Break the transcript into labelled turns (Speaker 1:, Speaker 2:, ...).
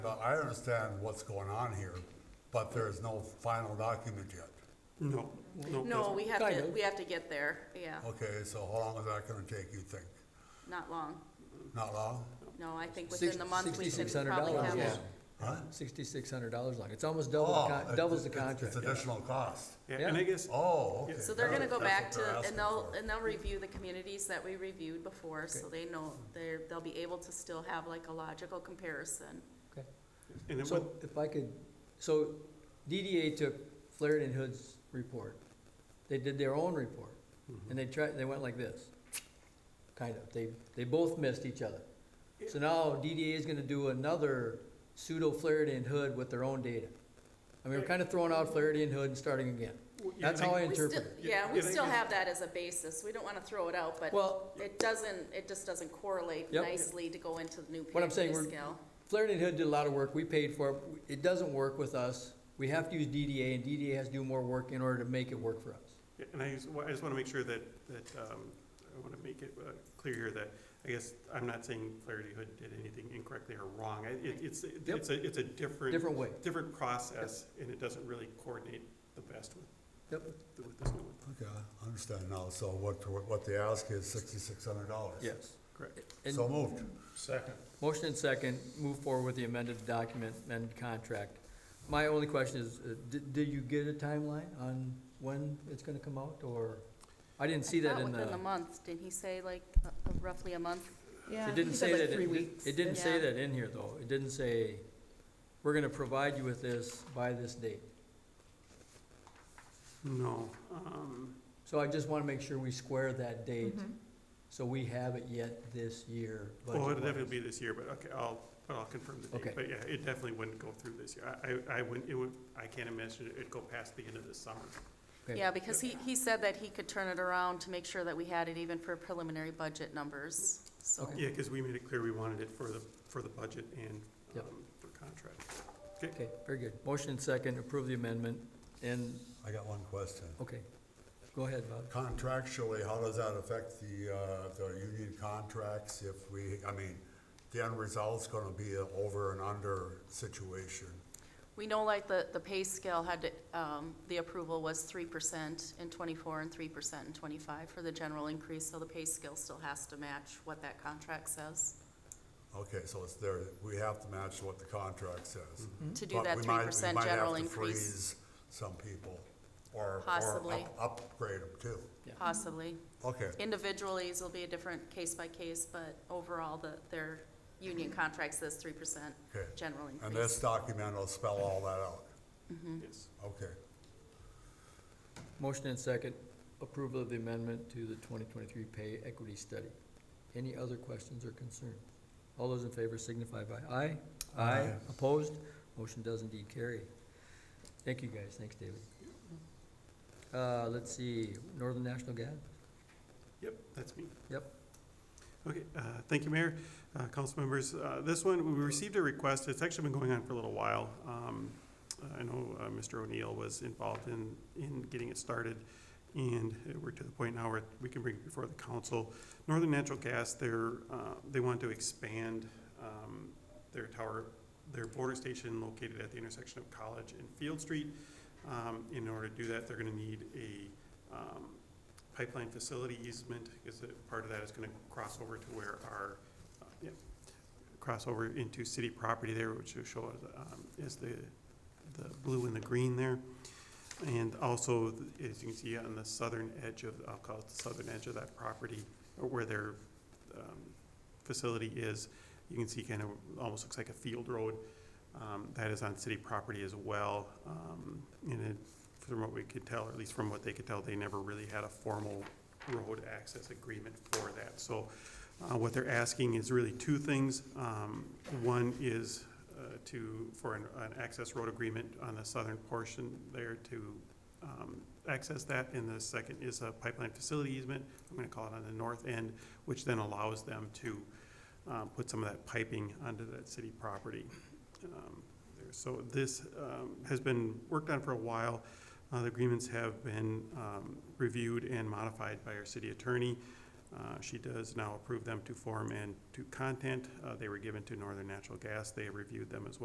Speaker 1: Well, I understand what's going on here, but there is no final document yet.
Speaker 2: No, no.
Speaker 3: No, we have
Speaker 2: Kind
Speaker 3: to,
Speaker 2: of.
Speaker 3: we have to get there, yeah,
Speaker 1: Okay, so how long is that gonna take, you think?
Speaker 3: not long.
Speaker 1: Not long?
Speaker 3: No, I think
Speaker 4: Six-
Speaker 3: within the month, we should probably
Speaker 4: $6,600
Speaker 3: have
Speaker 4: yeah.
Speaker 3: it.
Speaker 1: Huh?
Speaker 4: Sixty-six hundred dollars like, it's almost double,
Speaker 1: Oh,
Speaker 4: the con-
Speaker 1: it-
Speaker 4: doubles the
Speaker 1: it's-
Speaker 4: contract.
Speaker 1: It's additional cost.
Speaker 2: Yeah, and I
Speaker 4: Yeah.
Speaker 2: guess,
Speaker 1: Oh, okay.
Speaker 3: So they're gonna
Speaker 1: That's
Speaker 3: go
Speaker 1: what
Speaker 3: back
Speaker 1: they're
Speaker 3: to,
Speaker 1: asking
Speaker 3: and they'll,
Speaker 1: for.
Speaker 3: and they'll review the communities that we reviewed before, so they know, they're, they'll be able to still have like a logical comparison.
Speaker 4: Okay.
Speaker 2: and it
Speaker 4: So
Speaker 2: would,
Speaker 4: if I could, so DDA took Flaherty and Hood's report. They did their own report
Speaker 1: Mm-hmm.
Speaker 4: and they tried, they went like this. Kind of, they, they both missed each other. So now DDA is gonna do another pseudo Flaherty and Hood with their own data. I mean, we're kind of throwing out Flaherty and Hood and starting again.
Speaker 2: Well, yeah,
Speaker 4: That's how I
Speaker 3: We still,
Speaker 4: interpret it.
Speaker 3: yeah,
Speaker 2: Yeah,
Speaker 3: we
Speaker 2: I think
Speaker 3: still
Speaker 2: it's-
Speaker 3: have that as a basis, we don't wanna throw it out, but
Speaker 4: Well,
Speaker 3: it doesn't, it just doesn't correlate
Speaker 4: Yep.
Speaker 3: nicely to go into the new
Speaker 4: What I'm saying,
Speaker 3: pay
Speaker 4: we're-
Speaker 3: scale.
Speaker 4: Flaherty and Hood did a lot of work, we paid for it, it doesn't work with us, we have to use DDA, and DDA has to do more work in order to make it work for us.
Speaker 2: yeah, and I just, wa- I just want to make sure that, that, um, I want to make it uh, clear here that, I guess, I'm not saying Flaherty Hood did anything incorrectly or wrong. I- It, it's, it's a, it's a different,
Speaker 4: Different way.
Speaker 2: different process, and it doesn't really coordinate the best with,
Speaker 4: Yep.
Speaker 2: with this new one.
Speaker 1: Okay, I understand now. So what, what they ask is sixty-six hundred dollars.
Speaker 4: Yes.
Speaker 2: Correct.
Speaker 4: And
Speaker 1: So moved.
Speaker 4: motion and second, move forward with the amended document, amended contract. My only question is, uh, did, did you get a timeline on when it's gonna come out, or, I didn't see that in uh,
Speaker 3: Within the
Speaker 4: the,
Speaker 3: month, didn't he say like roughly a month?
Speaker 5: Yeah,
Speaker 4: it
Speaker 5: he
Speaker 4: didn't
Speaker 5: said
Speaker 4: say
Speaker 5: like
Speaker 4: that,
Speaker 5: three
Speaker 4: it-
Speaker 5: weeks.
Speaker 4: it didn't say
Speaker 3: Yeah.
Speaker 4: that in here, though, it didn't say, we're gonna provide you with this by this date.
Speaker 2: No, um,
Speaker 4: So I just wanna make sure we square that date So we have it yet this year.
Speaker 2: well, it'll
Speaker 4: budget-wise.
Speaker 2: definitely be this year, but okay, I'll, but I'll confirm the
Speaker 4: Okay.
Speaker 2: date. But yeah, it definitely wouldn't go through this year. I, I, I wouldn't, it would, I can't imagine it'd go past the end of the summer.
Speaker 4: Okay.
Speaker 3: Yeah, because he, he said that he could turn it around to make sure that we had it even for preliminary budget numbers, so.
Speaker 4: Okay.
Speaker 2: Yeah, because we made it clear we wanted it for the, for the budget and
Speaker 4: Yep.
Speaker 2: um, for contract.
Speaker 4: Okay, very good. Motion and second, approve the amendment, and,
Speaker 1: I got one question.
Speaker 4: okay, go ahead, Bob.
Speaker 1: Contractually, how does that affect the, uh, the union contracts if we, I mean, the end result's gonna be an over and under situation?
Speaker 3: We know like the, the pay scale had, um, the approval was three percent in twenty-four and three percent in twenty-five for the general increase, so the pay scale still has to match what that contract says.
Speaker 1: Okay, so it's there, we have to match what the contract says.
Speaker 3: To do
Speaker 1: But
Speaker 3: that
Speaker 1: we might-
Speaker 3: three
Speaker 1: we
Speaker 3: percent
Speaker 1: might have
Speaker 3: general
Speaker 1: to
Speaker 3: increase,
Speaker 1: freeze Some people, or, or
Speaker 3: Possibly.
Speaker 1: up- upgrade them too.
Speaker 3: possibly.
Speaker 1: Okay,
Speaker 3: Individually, it'll be a different case by case, but overall, the, their union contract says three percent
Speaker 1: okay.
Speaker 3: general increase.
Speaker 1: And this document will spell all that out.
Speaker 2: Yes.
Speaker 1: Okay,
Speaker 4: Motion and second, approval of the amendment to the 2023 pay equity study. Any other questions or concerns? All those in favor signify by aye.
Speaker 1: Aye.
Speaker 4: Opposed? Motion does indeed carry. Thank you, guys. Thanks, David. Uh, let's see, Northern National Gas?
Speaker 2: Yep, that's me.
Speaker 4: Yep.
Speaker 2: Okay, uh, thank you, Mayor, uh, council members. Uh, This one, we received a request, it's actually been going on for a little while. Um, I know uh, Mr. O'Neill was involved in, in getting it started, and we're to the point now where we can bring it before the council. Northern Natural Gas, they're, uh, they want to expand um, their tower, their border station located at the intersection of College and Field Street. Um, In order to do that, they're gonna need a um, pipeline facility easement, is it, part of that is gonna cross over to where our, uh, yeah, cross over into city property there, which will show as, um, is the, the blue and the green there. And also, as you can see on the southern edge of, I'll call it the southern edge of that property, or where their, um, facility is, you can see kind of, almost looks like a field road, um, that is on city property as well. Um, and it from what we could tell, or at least from what they could tell, they never really had a formal road access agreement for that. So uh, what they're asking is really two things. Um, One is uh, to, for an an access road agreement on the southern portion there to um, access that. And the second is a pipeline facility easement, I'm going to call it on the north end, which then allows them to um, put some of that piping onto that city property. Um, there. So this um, has been worked on for a while. Uh, The agreements have been um, reviewed and modified by our city attorney. Uh, She does now approve them to form and to content. Uh, They were given to Northern Natural Gas. They reviewed them as well.